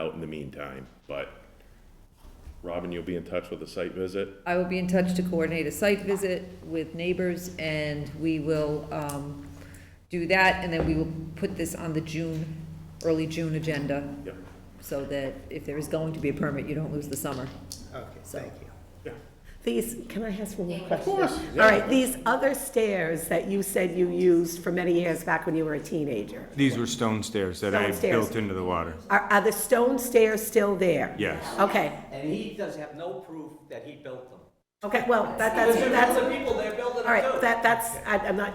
out in the meantime, but Robin, you'll be in touch with a site visit? I will be in touch to coordinate a site visit with neighbors, and we will um, do that, and then we will put this on the June, early June agenda, Yeah, so that if there is going to be a permit, you don't lose the summer. Okay, So- thank you. yeah. These, can I ask one more question? Of course, yeah. All right, these other stairs that you said you used for many years back when you were a teenager, These were stone stairs that I Stone stairs. built into the water. are, are the stone stairs still there? Yes. Okay, And he does have no proof that he built them. okay, well, that, that's, Because there's that's, other people there building them too. all right, that, that's, I- I'm not,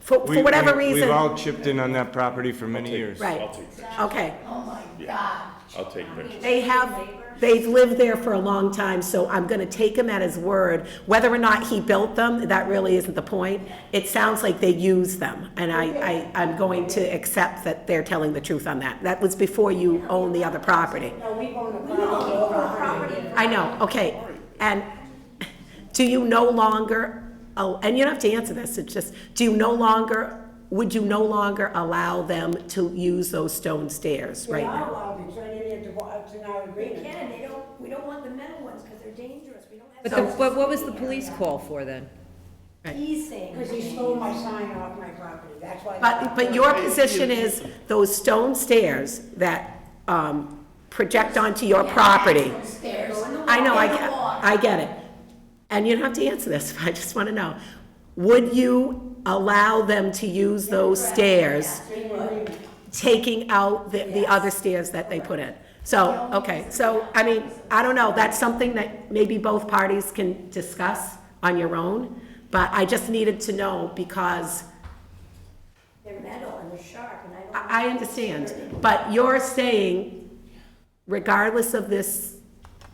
for, We- for whatever we- reason. We've all chipped in on that property for many years. Right. I'll take, pictures. Okay, I'll take pictures. they have, they've lived there for a long time, so I'm gonna take him at his word. Whether or not he built them, that really isn't the point. It sounds like they use them, and I, I, I'm going to accept that they're telling the truth on that. That was before you owned the other property. I know, okay. And do you no longer, oh, and you don't have to answer this, it's just, do you no longer, would you no longer allow them to use those stone stairs right now? uh, They can, they don't, we don't want the metal ones, because they're dangerous, we don't have. But the, but what was the police call for then? He's saying. Because he stole my sign off my property, that's why. But, but your position is those stone stairs that um, project onto your property. Stairs. I know, I get, I get it. And you don't have to answer this, but I just want to know. Would you allow them to use those stairs, taking out the, the other stairs that they put in? So, okay, so, I mean, I don't know, that's something that maybe both parties can discuss on your own, but I just needed to know because They're metal and they're sharp, and I don't. I I understand, but you're saying regardless of this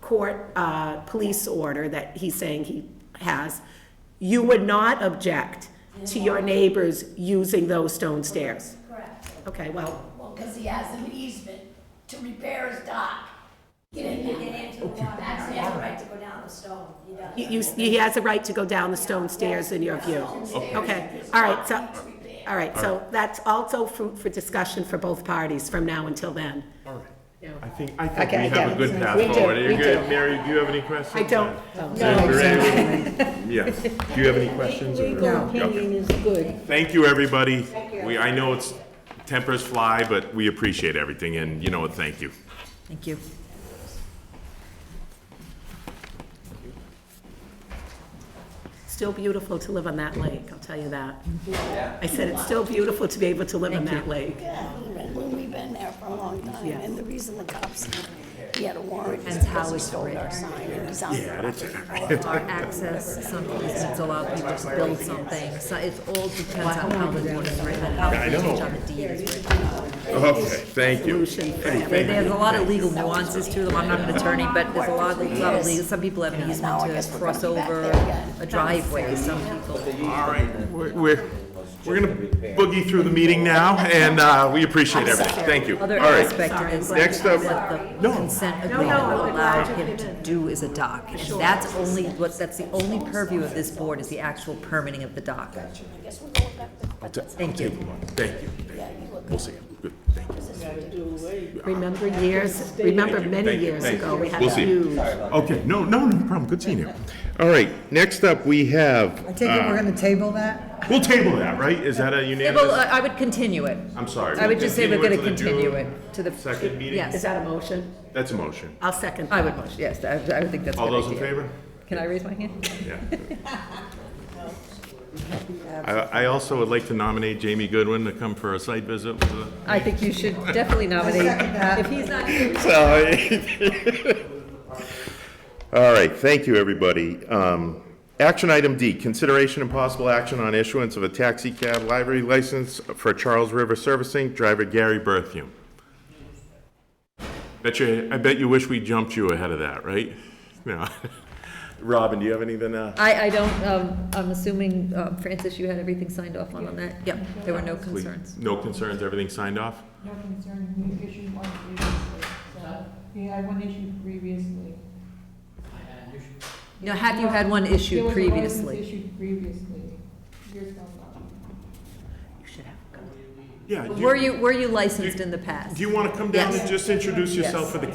court, uh, police order that he's saying he has, you would not object to your neighbors using those stone stairs? Correct. Okay, well, Well, because he has an easement to repair his dock. Get in He there. can answer the water, he has a right to go down the stone, he does. you, you- he has a right to go down the stone stairs in your view. Okay, all right, so, all right, so that's also food for discussion for both parties from now until then. All right. I think, I think Okay, I we get have a it. good path We do, forward. Are we you do. good, Mary? Do you have any questions? I don't, Then we're ready. Yes. Do you have any questions? or- Okay. is good. Thank you, everybody. We, I know it's, tempers fly, but we appreciate everything and, you know what, thank you. Thank you. Still beautiful to live on that lake, I'll tell you that. I said it's still beautiful to be able to live on that lake. Well, We've been there for a long time, and the reason the cops, he had a warrant. Depends how it's written. Yeah, that's it. Our access, some easements allow people to build something, so it all depends on how the board is written, how the change on the deed is written. Okay, thank you. There- There's a lot of legal nuances to them, I'm not an attorney, but there's a lot, a lot of legal, some people have an easement to cross over a driveway, some people. All right, we're, we're we're gonna boogie through the meeting now, and uh, we appreciate everything. Thank you. All Other right. aspect of this, Next up- what the consent agreement will allow him to do is a dock. And that's only, what, that's the only purview of this board is the actual permitting of the dock. Thank you. Thank you. Thank you. We'll see. Good, thank you. Remember years, remember Thank you, many thank you, years thank ago, you. we had We'll a see. huge. Okay, no, no, no problem. Good seeing you. All right, next up, we have. um, I take it we're gonna table that? We'll table that, right? Is that a Well, unanimous? I I would continue it. I'm sorry. I would just say we're gonna We'll continue till the it June to the. Second meeting? Is Yes, that a motion? That's a motion. I'll second. I would, motion- yes, I I would think that's a All good those in idea. favor? Can I raise my hand? Yeah. I, I also would like to nominate Jamie Goodwin to come for a site visit with the I think you should definitely nominate, if he's not here. So- All right, thank you, everybody. Um, Action item D, consideration and possible action on issuance of a taxi cab library license for Charles River Servicing, driver Gary Bertheum. Bet you, I bet you wish we jumped you ahead of that, right? No. Robin, do you have anything, uh, I, I don't, um, I'm assuming, uh, Francis, you had everything signed off on, on that? Yep, there were no concerns. no concerns, everything signed off? No concern, we issued one previously, so, we had one issue previously. Now, have you had one There issued was a license previously? Issued previously, years gone by. Yeah. do Were you, were you licensed in the past? Do you want to come down Yes. and just introduce yourself for the